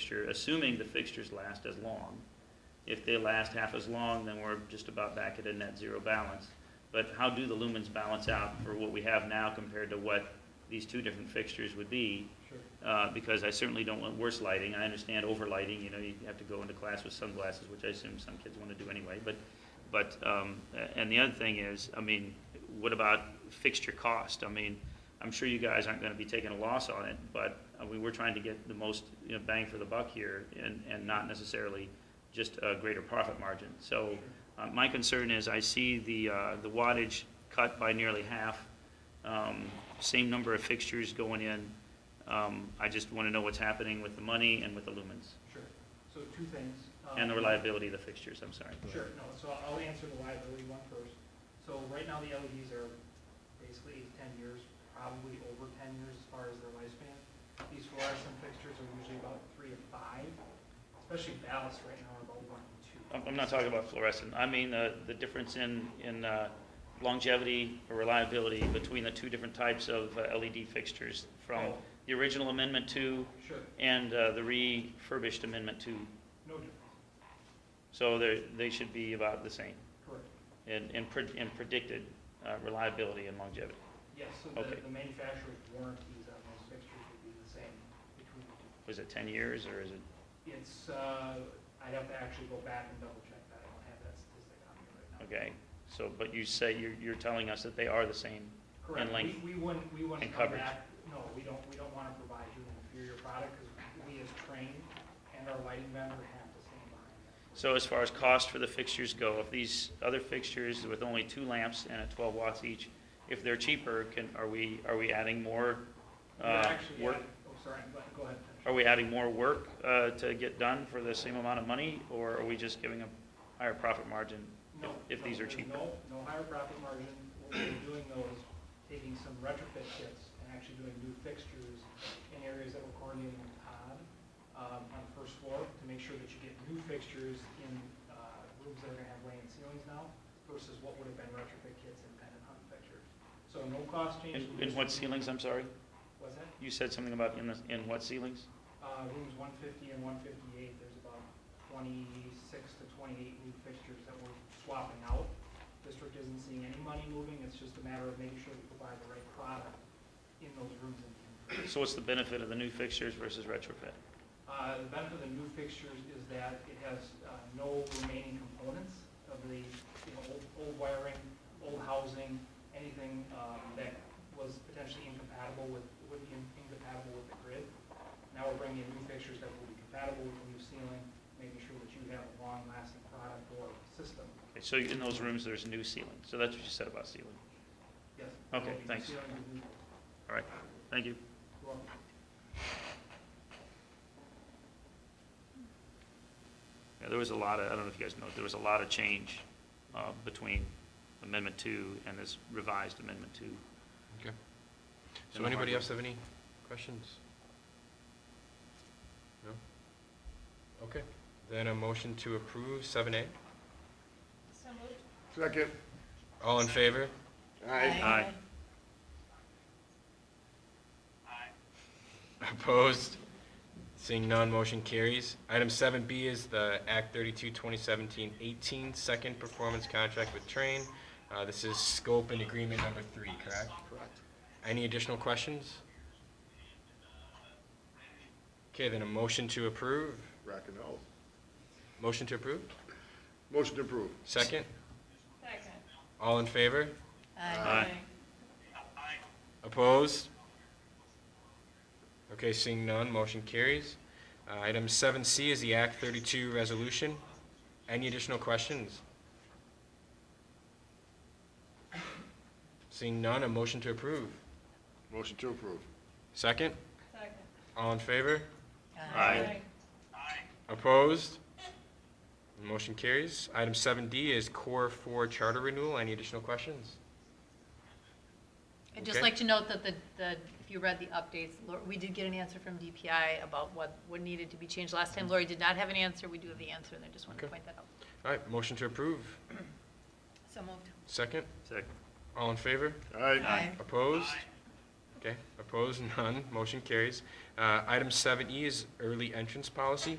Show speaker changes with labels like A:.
A: fixture, assuming the fixtures last as long. If they last half as long, then we're just about back at a net zero balance. But how do the lumens balance out for what we have now compared to what these two different fixtures would be?
B: Sure.
A: Uh, because I certainly don't want worse lighting. I understand overlighting, you know, you have to go into class with sunglasses, which I assume some kids want to do anyway, but, but, um, a- and the other thing is, I mean, what about fixture cost? I mean, I'm sure you guys aren't gonna be taking a loss on it, but, I mean, we're trying to get the most, you know, bang for the buck here and, and not necessarily just a greater profit margin. So, uh, my concern is I see the, uh, the wattage cut by nearly half, um, same number of fixtures going in. Um, I just want to know what's happening with the money and with the lumens
B: Sure. So two things. um,
A: and the reliability of the fixtures, I'm sorry.
B: Sure, no, so I'll answer the liability one first. So right now, the LEDs are basically eight, ten years, probably over ten years as far as their lifespan. These fluorescent fixtures are usually about three to five, especially ballasts right now are about one to two.
A: I'm, I'm not talking about fluorescent. I mean, the, the difference in, in uh, longevity or reliability between the two different types of uh, LED fixtures from
B: Oh.
A: the original Amendment Two
B: Sure,
A: and uh, the refurbished Amendment Two.
B: no difference,
A: So they, they should be about the same
B: correct.
A: in, in, pred- in predicted uh, reliability and longevity.
B: Yes, so the,
A: Okay.
B: the manufacturer's warranties on those fixtures would be the same between the two.
A: Was it 10 years or is it?
B: It's, uh, I'd have to actually go back and double check that, I don't have that statistic on me right now.
A: Okay, so, but you say, you're, you're telling us that they are the same?
B: Correct.
A: And length.
B: We, we wouldn't, we wouldn't
A: And
B: come
A: coverage.
B: back, no, we don't, we don't wanna provide you an inferior product, because we as trained and our lighting vendor have to stand behind that.
A: So as far as cost for the fixtures go, if these other fixtures with only two lamps and at 12 watts each, if they're cheaper, can, are we, are we adding more,
B: You're
A: uh,
B: actually
A: work?
B: add- Oh, sorry, but go ahead. finish.
A: Are we adding more work, uh, to get done for the same amount of money, or are we just giving a higher profit margin?
B: No,
A: if- if
B: no,
A: these are
B: there's
A: cheaper.
B: No, no higher profit margin, what we're doing though is taking some retrofit kits and actually doing new fixtures in areas that we're coordinating with Todd, um, on the first floor, to make sure that you get new fixtures in, uh, rooms that are gonna have laying ceilings now, versus what would have been retrofit kits and pendant hung fixtures. So no cost change.
A: In,
B: we're
A: in
B: just-
A: what ceilings, I'm sorry?
B: What's that?
A: You said something about in the, in what ceilings?
B: Uh, rooms one fifty and one fifty-eight, there's about twenty-six to twenty-eight new fixtures that we're swapping out. District isn't seeing any money moving, it's just a matter of making sure we provide the right product in those rooms and the inventory.
A: So what's the benefit of the new fixtures versus retrofit?
B: Uh, The benefit of the new fixtures is that it has uh, no remaining components of the, you know, old- old wiring, old housing, anything um, that was potentially incompatible with, would be in- incompatible with the grid. Now we're bringing in new fixtures that will be compatible with the new ceiling, making sure that you have a long-lasting product or system.
A: Okay, so in those rooms, there's new ceiling, so that's what you said about ceiling.
B: Yes.
A: Okay,
B: there'll be new
A: thanks.
B: ceiling, new-
A: All right, thank you.
B: well,
A: Yeah, there was a lot of, I don't know if you guys know, there was a lot of change uh, between Amendment Two and this revised Amendment Two.
C: Okay.
A: And
C: So
A: the
C: anybody
A: hardware.
C: else have any questions? No? Okay, then a motion to approve seven A.
D: So moved.
E: Second.
C: All in favor?
E: Aye.
A: Aye.
C: Opposed? Seeing none, motion carries. Item seven B is the Act 32, 2017-18 second performance contract with Train. Uh, this is scope and agreement number three, correct?
E: Correct.
C: Any additional questions? Okay, then a motion to approve.
E: Rockin' out.
C: Motion to approve?
E: Motion to approve.
C: Second?
D: Second.
C: All in favor?
A: Aye.
C: Opposed? Okay, seeing none, motion carries. Uh, Item 7C is the Act 32 resolution. Any additional questions? Seeing none, a motion to approve.
E: Motion to approve.
C: Second?
D: Second.
C: All in favor?
A: Aye.
C: Opposed? Motion carries. Item 7D is Core 4 Charter Renewal. Any additional questions?
F: I'd just
C: Okay.
F: like to note that the, the, if you read the updates, Lor- we did get an answer from DPI about what, what needed to be changed. Last time Lori did not have an answer, we do have the answer, and I just wanted to
C: Okay.
F: point that out.
C: All right, motion to approve.
F: So moved.
C: Second?
A: Second.
C: All in favor?
E: Aye.
C: Opposed? Okay, opposed, none, motion carries. Uh, Item 7E is E early entrance policy.